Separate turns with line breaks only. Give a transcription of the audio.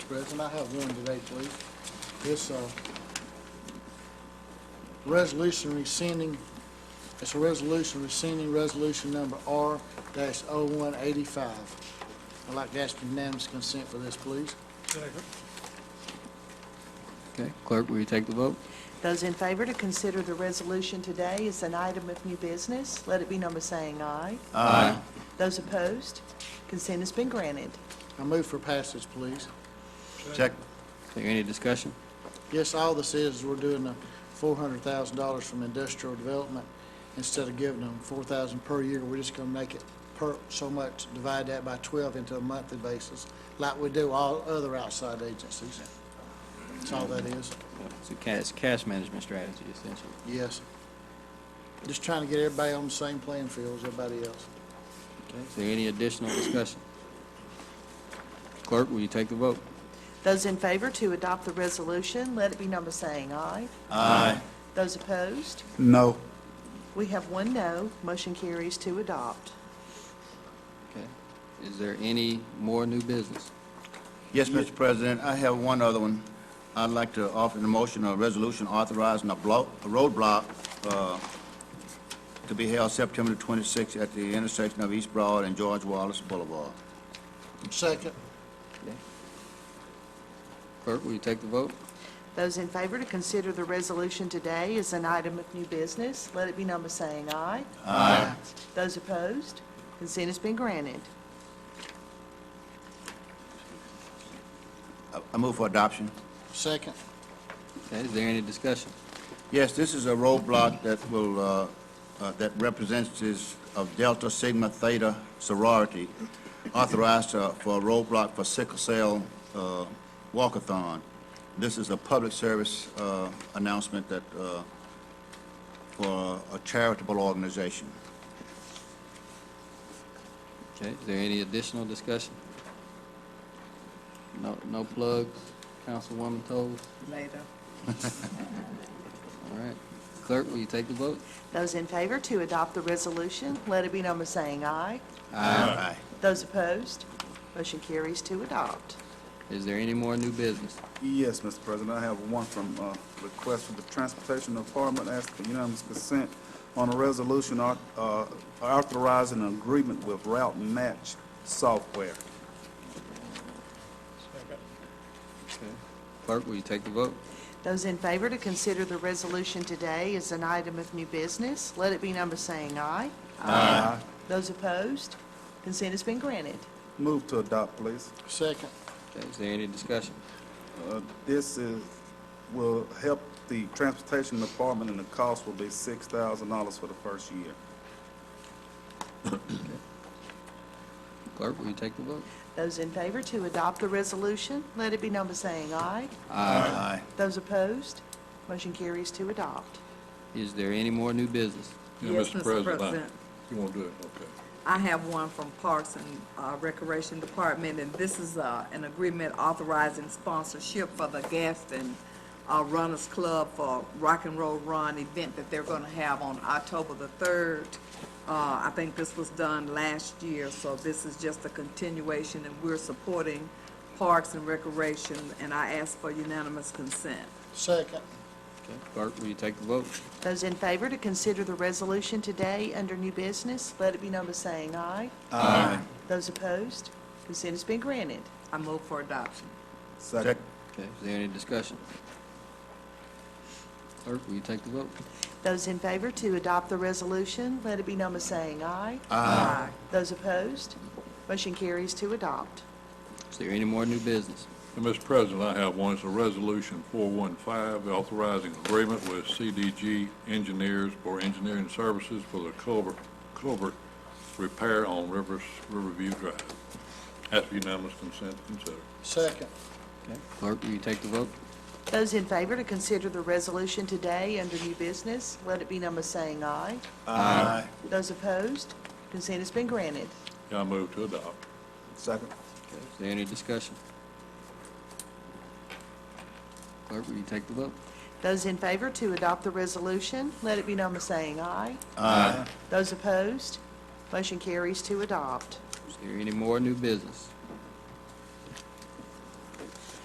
President. I have one today, please. It's uh, a resolution rescinding, it's a resolution rescinding resolution number R dash oh one eighty-five. I'd like to ask unanimous consent for this, please.
Okay, clerk, will you take the vote?
Those in favor to consider the resolution today as an item of new business, let it be number saying aye. Aye. Those opposed, consent has been granted.
I move for passage, please.
Check.
Is there any discussion?
Yes, all this is, we're doing the four hundred thousand dollars from industrial development. Instead of giving them four thousand per year, we're just gonna make it per, so much, divide that by twelve into a monthly basis, like we do all other outside agencies. That's all that is,
It's a cash, cash management strategy essentially.
yes. Just trying to get everybody on the same playing field as everybody else.
Okay, is there any additional discussion? Clerk, will you take the vote?
Those in favor to adopt the resolution, let it be number saying aye.
Aye.
Those opposed,
No.
we have one no, motion carries to adopt.
Okay, is there any more new business?
Yes, Mr. President, I have one other one. I'd like to offer the motion of resolution authorizing a block, a roadblock, uh, to be held September the 26th at the intersection of East Broad and George Wallace Boulevard.
Second,
Clerk, will you take the vote?
Those in favor to consider the resolution today as an item of new business, let it be number saying aye. Aye. Those opposed, consent has been granted.
I- I move for adoption.
second,
Okay, is there any discussion?
Yes, this is a roadblock that will, uh, uh, that representatives of Delta Sigma Theta sorority authorized uh, for a roadblock for sickle cell uh, walkathon. This is a public service uh, announcement that, uh, for a charitable organization.
Okay, is there any additional discussion? No, no plugs, Councilwoman Toles?
Later.
All right, clerk, will you take the vote?
Those in favor to adopt the resolution, let it be number saying aye.
Aye.
Those opposed, motion carries to adopt.
Is there any more new business?
Yes, Mr. President, I have one from, uh, request for the Transportation Department, ask for unanimous consent on a resolution au- uh, authorizing an agreement with Route Match Software.
Clerk, will you take the vote?
Those in favor to consider the resolution today as an item of new business, let it be number saying aye. Aye. Those opposed, consent has been granted.
Move to adopt, please.
second,
Okay, is there any discussion?
Uh, This is, will help the Transportation Department, and the cost will be six thousand dollars for the first year.
Clerk, will you take the vote?
Those in favor to adopt the resolution, let it be number saying aye.
Aye.
Those opposed, motion carries to adopt.
Is there any more new business?
Yeah,
Yes, Mr. President.
You won't do it, okay.
I have one from Parks and uh, Recreation Department, and this is uh, an agreement authorizing sponsorship for the Gaston uh, Runners Club for Rock and Roll Run event that they're going to have on October the 3rd. Uh, I think this was done last year, so this is just a continuation, and we're supporting Parks and Recreation, and I ask for unanimous consent.
second,
Okay, Clerk, will you take the vote?
Those in favor to consider the resolution today under new business, let it be number saying aye.
Aye.
Those opposed, consent has been granted.
I move for adoption.
Second.
Okay, is there any discussion? Clerk, will you take the vote?
Those in favor to adopt the resolution, let it be number saying aye.
Aye.
Those opposed, motion carries to adopt.
Is there any more new business?
And Mr. President, I have one, it's a resolution 415 authorizing agreement with CDG Engineers for engineering services for the culvert, culvert repair on Rivers, Riverview Drive. Ask for unanimous consent to consider.
second,
Okay, Clerk, will you take the vote?
Those in favor to consider the resolution today under new business, let it be number saying aye.
Aye.
Those opposed, consent has been granted.
Yeah, I move to adopt.
Second.
Okay, is there any discussion? Clerk, will you take the vote?
Those in favor to adopt the resolution, let it be number saying aye. Those opposed, motion carries to adopt.
Is there any more new business?